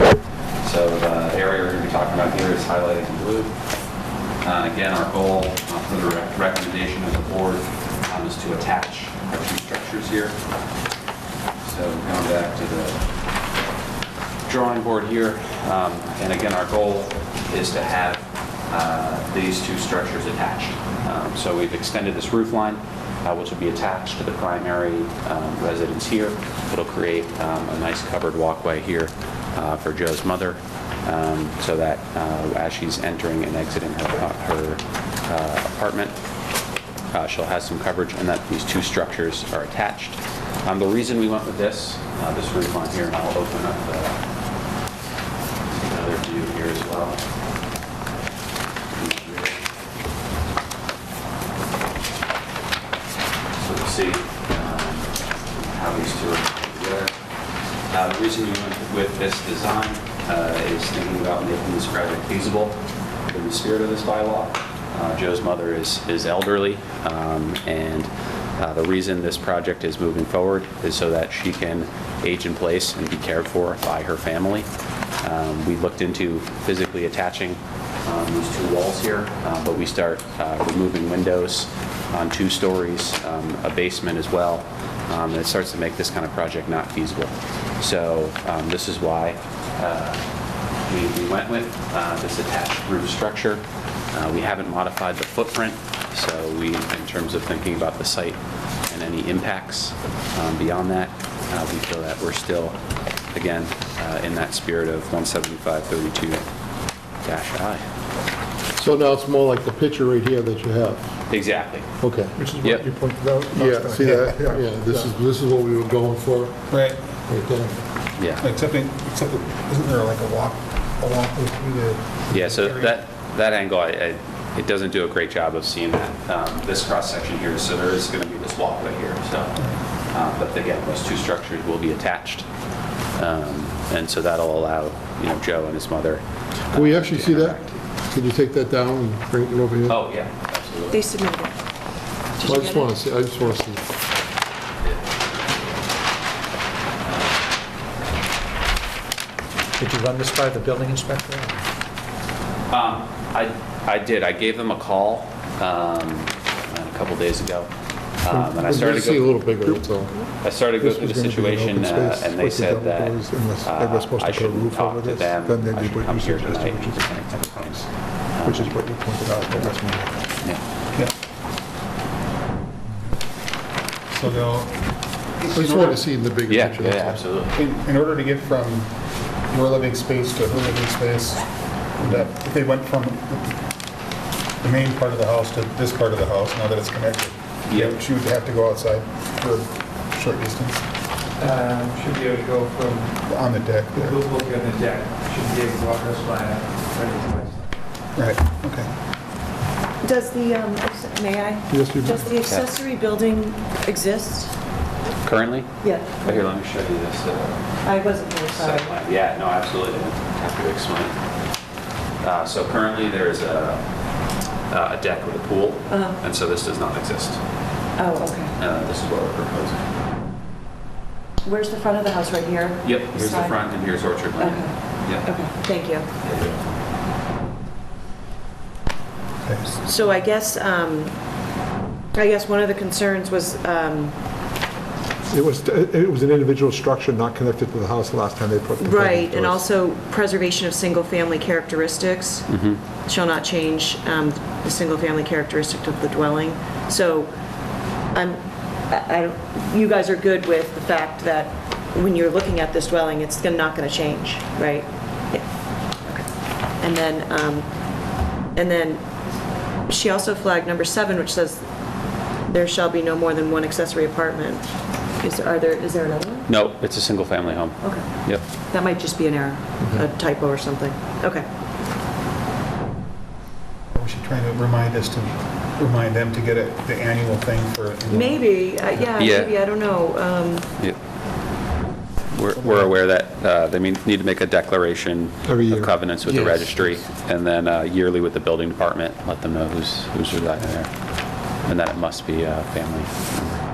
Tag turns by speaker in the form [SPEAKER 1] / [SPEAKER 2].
[SPEAKER 1] uh, talking about here is highlighted in blue. Uh, Again, our goal uh, for the rec- recommendation of the board um, is to attach our two structures here. So going back to the drawing board here, um, and again, our goal is to have uh, these two structures attached. Um, So we've extended this roof line, uh, which will be attached to the primary um, residence here. It'll create um, a nice covered walkway here uh, for Joe's mother, um, so that uh, as she's entering and exiting her her, uh, apartment, uh, She'll have some coverage and that these two structures are attached. Um, The reason we went with this, uh, this roof on here, and I'll open up the- another view here as well. So you'll see um, how these two are together. Uh, The reason we went with this design uh, is thinking about making this project feasible in the spirit of this bylaw. Uh, Joe's mother is is elderly, um, and uh, the reason this project is moving forward is so that she can age in place and be cared for by her family. Um, We looked into physically attaching um, these two walls here, uh, but we start uh, removing windows on two stories, um, a basement as well, um, and it starts to make this kind of project not feasible. So um, this is why uh, we we went with uh, this attached roof structure. Uh, We haven't modified the footprint, so we, in terms of thinking about the site and any impacts um, beyond that, uh, we feel that we're still, again, uh, in that spirit of 17532-I.
[SPEAKER 2] So now it's more like the picture right here that you have.
[SPEAKER 1] Exactly.
[SPEAKER 2] Okay.
[SPEAKER 3] Which is
[SPEAKER 1] Yep.
[SPEAKER 3] what you pointed out.
[SPEAKER 2] Yeah, see that? Yeah, this is, this is what we were going for,
[SPEAKER 3] Right,
[SPEAKER 2] right there.
[SPEAKER 1] Yeah.
[SPEAKER 3] except, it- except, it- isn't there like a walk, a walkway through the?
[SPEAKER 1] Yeah, so that, that angle, I- I- it doesn't do a great job of seeing that, um, this cross-section here, so there is going to be this walkway here, so. uh, But again, those two structures will be attached. Um, And so that'll allow, you know, Joe and his mother.
[SPEAKER 2] Can we actually see that? Can you take that down and bring it over here?
[SPEAKER 1] Oh, yeah, absolutely.
[SPEAKER 4] They submitted it. Did
[SPEAKER 2] Well, I
[SPEAKER 4] you
[SPEAKER 2] just
[SPEAKER 4] get it?
[SPEAKER 2] want to see, I just want to see.
[SPEAKER 5] Did you run this by the building inspector?
[SPEAKER 1] Um, I, I did, I gave them a call um, a couple days ago. um, And I
[SPEAKER 2] We'd
[SPEAKER 1] started
[SPEAKER 2] just see a
[SPEAKER 1] to go,
[SPEAKER 2] little bigger, that's all.
[SPEAKER 1] I started to go
[SPEAKER 3] This
[SPEAKER 1] through
[SPEAKER 3] was
[SPEAKER 1] the
[SPEAKER 3] gonna be an
[SPEAKER 1] situation,
[SPEAKER 3] open
[SPEAKER 1] uh,
[SPEAKER 3] space
[SPEAKER 1] and they
[SPEAKER 3] with the
[SPEAKER 1] said that
[SPEAKER 3] developers, unless they were
[SPEAKER 1] uh,
[SPEAKER 3] supposed to
[SPEAKER 1] I
[SPEAKER 3] put a
[SPEAKER 1] shouldn't
[SPEAKER 3] roof
[SPEAKER 1] talk
[SPEAKER 3] over
[SPEAKER 1] to
[SPEAKER 3] this,
[SPEAKER 1] them,
[SPEAKER 3] then they'd
[SPEAKER 1] I
[SPEAKER 3] be
[SPEAKER 1] should
[SPEAKER 3] what
[SPEAKER 1] come
[SPEAKER 3] you
[SPEAKER 1] here
[SPEAKER 3] suggested,
[SPEAKER 1] tonight.
[SPEAKER 3] which
[SPEAKER 1] and present it
[SPEAKER 3] is-
[SPEAKER 1] to them.
[SPEAKER 3] Which is what you pointed out, but that's my,
[SPEAKER 1] Yeah.
[SPEAKER 3] yeah. So they'll.
[SPEAKER 2] I just want to see the bigger
[SPEAKER 1] Yeah,
[SPEAKER 2] picture.
[SPEAKER 1] yeah,
[SPEAKER 2] that's all.
[SPEAKER 1] absolutely.
[SPEAKER 3] In, in order to get from your living space to her living space, that, if they went from the main part of the house to this part of the house, now that it's connected,
[SPEAKER 1] Yeah.
[SPEAKER 3] she would have to go outside for a short distance
[SPEAKER 6] Um, Should be able to go from
[SPEAKER 3] on the deck
[SPEAKER 6] the
[SPEAKER 3] there.
[SPEAKER 6] blue book on the deck, should be able to walk this line up right to us.
[SPEAKER 3] Right, okay.
[SPEAKER 4] Does the, um, ex- may I?
[SPEAKER 3] Yes, you may.
[SPEAKER 4] Does the accessory building exist?
[SPEAKER 1] Currently?
[SPEAKER 4] Yeah,
[SPEAKER 1] Here, let me show you this uh,
[SPEAKER 4] I wasn't really
[SPEAKER 1] site
[SPEAKER 4] sorry.
[SPEAKER 1] plan. Yeah, no, absolutely. Happy to explain. Uh, So currently, there is a uh, a deck with a pool,
[SPEAKER 4] Uh-huh.
[SPEAKER 1] and so this does not exist.
[SPEAKER 4] Oh, okay.
[SPEAKER 1] Uh, This is what we're proposing.
[SPEAKER 4] Where's the front of the house, right here?
[SPEAKER 1] Yep, here's the
[SPEAKER 4] Side?
[SPEAKER 1] front, and here's Orchard Lane. Yep.
[SPEAKER 4] Okay, thank you.
[SPEAKER 3] Okay.
[SPEAKER 4] So I guess, um, I guess one of the concerns was, um,
[SPEAKER 7] It was, it was an individual structure not connected to the house last time they put. the building
[SPEAKER 4] right, and
[SPEAKER 7] to us.
[SPEAKER 4] also preservation of single-family characteristics shall not change um, the single-family characteristic of the dwelling. So I'm, I, I- you guys are good with the fact that when you're looking at this dwelling, it's gonna- not going to change, right? Yeah. And then, um, and then she also flagged number seven, which says, "There shall be no more than one accessory apartment." Is, are there, is there another one?
[SPEAKER 1] No, it's a single-family home.
[SPEAKER 4] Okay.
[SPEAKER 1] Yep.
[SPEAKER 4] That might just be an error, a typo or something. Okay.
[SPEAKER 3] We should try to remind us to, remind them to get it, the annual thing for.
[SPEAKER 4] Maybe, uh, yeah,
[SPEAKER 1] Yeah.
[SPEAKER 4] maybe, I don't know. Um,
[SPEAKER 1] Yep. We're we're aware that uh, they mean- need to make a declaration
[SPEAKER 7] Every year.
[SPEAKER 1] of covenants with the
[SPEAKER 2] Yes.
[SPEAKER 1] registry, and then uh, yearly with the building department, let them know who's who's residing there, and that it must be a uh, family member.
[SPEAKER 7] Um,